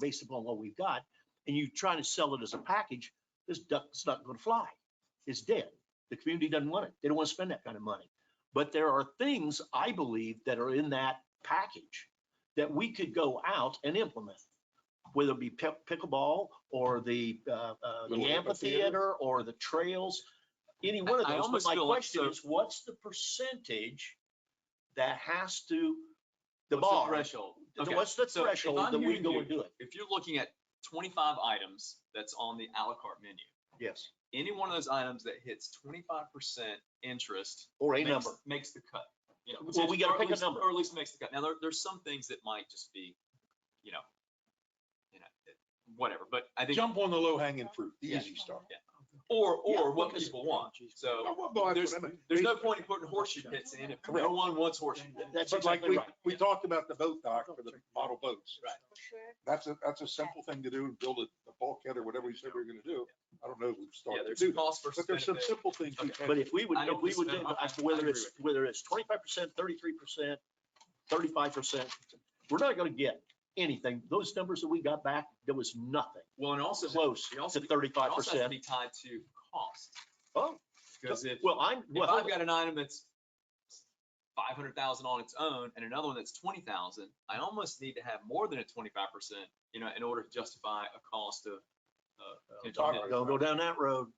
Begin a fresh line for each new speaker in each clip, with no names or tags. based upon what we've got, and you're trying to sell it as a package, this duck's not gonna fly. It's dead. The community doesn't want it. They don't want to spend that kind of money. But there are things, I believe, that are in that package that we could go out and implement, whether it be pick- pickleball or the, uh, uh,
Little
the amphitheater or the trails, any one of
I- I
those. But
almost
my
feel like
question
so-
is, what's the percentage that has to, the
What's
bar?
Threshold. Okay,
What's the
so if
threshold
I'm
that we
hearing
go
you,
and do it?
If you're looking at twenty-five items that's on the à la carte menu,
Yes,
any one of those items that hits twenty-five percent interest.
or a
makes-
number.
Makes the cut. you know,
Well, we gotta
or at
pick a
least-
number.
Or at least makes the cut. Now, there, there's some things that might just be, you know, you know, it- whatever, but I think,
Jump on the low hanging fruit, the
Yeah.
easy stuff.
or, or
Yeah,
what
because-
people want. So
Well, well, that's what I mean.
there's no point in putting horseshoe pits in if no
Correct.
one wants horseshoe.
Th-
pits.
That's
But like
exactly
we,
right.
we talked about the boat dock for the model boats.
Right.
That's a, that's a simple thing to do and build a a bulkhead or whatever you said we were gonna do. I don't know if we've
Yeah,
started to
there's
do that.
cost versus
But there's some
benefit.
simple things we
But
can,
if we would,
I
if
don't
we would,
disagree.
do-
Okay,
as to
I
whether
agree
it's,
with
whether it's twenty-five percent, thirty-three percent, thirty-five percent, we're not gonna get anything. Those numbers that we got back, there was nothing
Well, and also.
close
it
to
also- It
thirty-five
also has to
percent.
be tied to cost,
Oh,
because if,
well, I'm,
if
well,
I've got an item that's five hundred thousand on its own and another one that's twenty thousand, I almost need to have more than a twenty-five percent, you know, in order to justify a cost of. uh,
don't-
potential hit.
don't go down that road.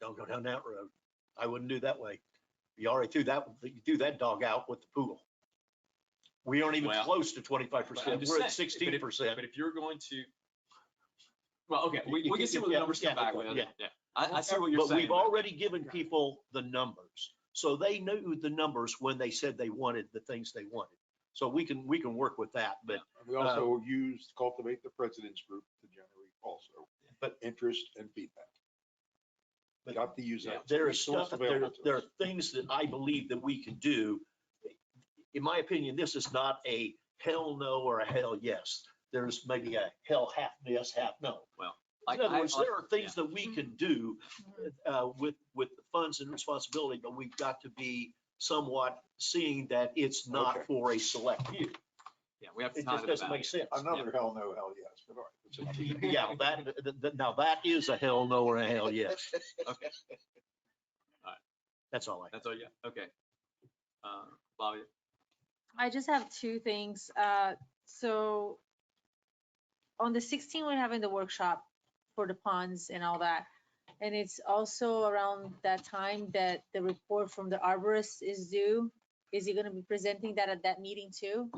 Don't go down that road. I wouldn't do that way. You already threw that, you threw that dog out with the poodle. We aren't even
Well,
close to twenty-five
but I'm
percent.
just
We're at
saying, but if-
sixteen percent.
But if you're going to, well, okay,
You-
we,
you
we can
can-
see what the
yeah,
numbers come
yeah,
back
okay,
with,
yeah.
yeah. I, I see what you're
But
saying.
we've already given people the numbers, so they knew the numbers when they said they wanted the things they wanted. So we can, we can work with that, but,
and we also used cultivate the president's group to generate also,
But-
interest and feedback.
But-
Got to use that.
there is
resource
stuff, there,
available to
there are
us.
things that I believe that we can do. In my opinion, this is not a hell no or a hell yes. There's maybe a hell half yes, half no.
I-
In other
I-
words, there are things that we can do uh, with, with the funds and responsibility, but we've got to be somewhat seeing that it's
Okay.
not for a select few.
Yeah, we have to
It
tie
just
it
doesn't
back.
make sense.
Another hell no, hell yes, but all right. that's another-
Yeah, that, th- th- now that is a hell no or a hell yes.
Okay. Alright.
That's all I,
That's all, yeah, okay. Uh, Bobby,
I just have two things. Uh, so on the 16th, we're having the workshop for the ponds and all that. And it's also around that time that the report from the arborist is due. Is he gonna be presenting that at that meeting too?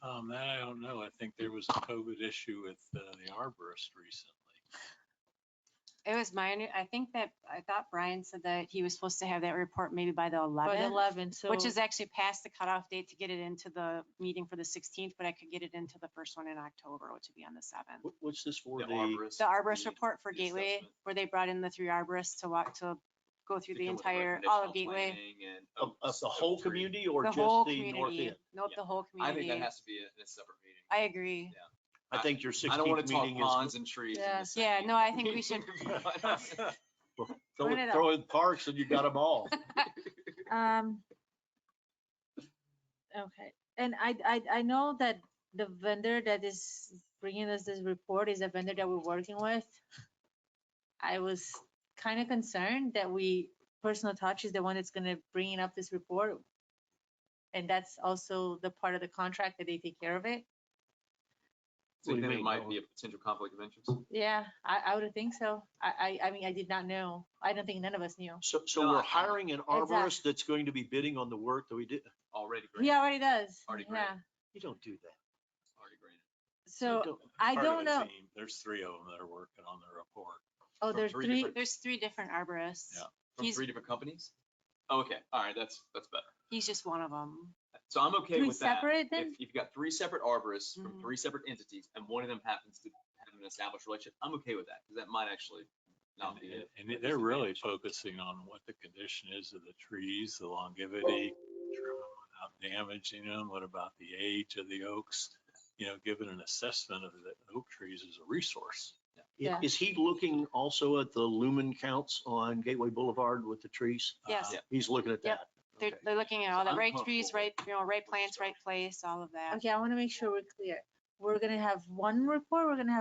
Um, that I don't know. I think there was a COVID issue with uh, the arborist recently.
It was my, under- I think that, I thought Brian said that he was supposed to have that report maybe by the
By the
11th,
11th, so.
which is actually past the cutoff date to get it into the meeting for the 16th, but I could get it into the first one in October, which would be on the 7th.
What- what's this for?
the
The,
arborist.
The arborist
the-
report for
the
Gateway,
assessment.
where they brought in the three arborists to walk, to go through
to
the
come with a
entire,
recommendation
all
on
of Gateway,
planning and
of,
oak-
of the
oak
whole
tree.
community or
the
just
whole
the north
community.
end?
Nope,
Yeah.
the whole
I think that
community.
has to be in a separate meeting.
I agree.
I think your
I don't want
sixteenth
to talk
meeting is
ponds and trees. in
Yeah.
the same
Yeah,
meeting.
no, I think we should,
throw-
Turn it up.
throw in parks and you got them all.
Um. Okay, and I, I, I know that the vendor that is bringing us this report is a vendor that we're working with. I was kind of concerned that we, Personal Touch is the one that's gonna bringing up this report. And that's also the part of the contract that they take care of it.
So
What do you
you think it
mean?
might be a potential conflict of interest?
Yeah, I, I would think so. I, I, I mean, I did not know. I don't think none of us knew.
So, so
No, I-
we're
I-
hiring an arborist that's going to be bidding on the work that we did.
Already
He
granted,
already does.
Already great.
Yeah,
You don't do that.
already granted.
You
so
don't-
I
Part of
don't
the
know.
team. There's three of them that are working on the report.
Oh,
from
there's
three
three,
different-
there's three different arborists.
Yeah.
From
He's-
three different companies? Oh, Okay, all right, that's, that's better.
He's just one of them.
So I'm okay
three
with that.
separate
If
then?
if you've got three separate arborists from
Mhm.
three separate entities and one of them happens to have an established relationship, I'm okay with that, because that might actually not
And-
be it.
And they're really focusing on what the condition is of the trees, the longevity, trimming without damaging them, what about the age of the oaks? You know, giving an assessment of the oak trees as a resource.
Yeah.
Is he looking also at the lumen counts on Gateway Boulevard with the trees?
Yes.
Uh,
Yeah.
He's looking at that.
Yep. They're,
Okay.
they're looking at
So
all the
I'm
right trees,
comfortable
right, you know, right plants,
starting.
right place, all of that.
Okay, I want to make sure we're clear. we're gonna have one report, we're gonna have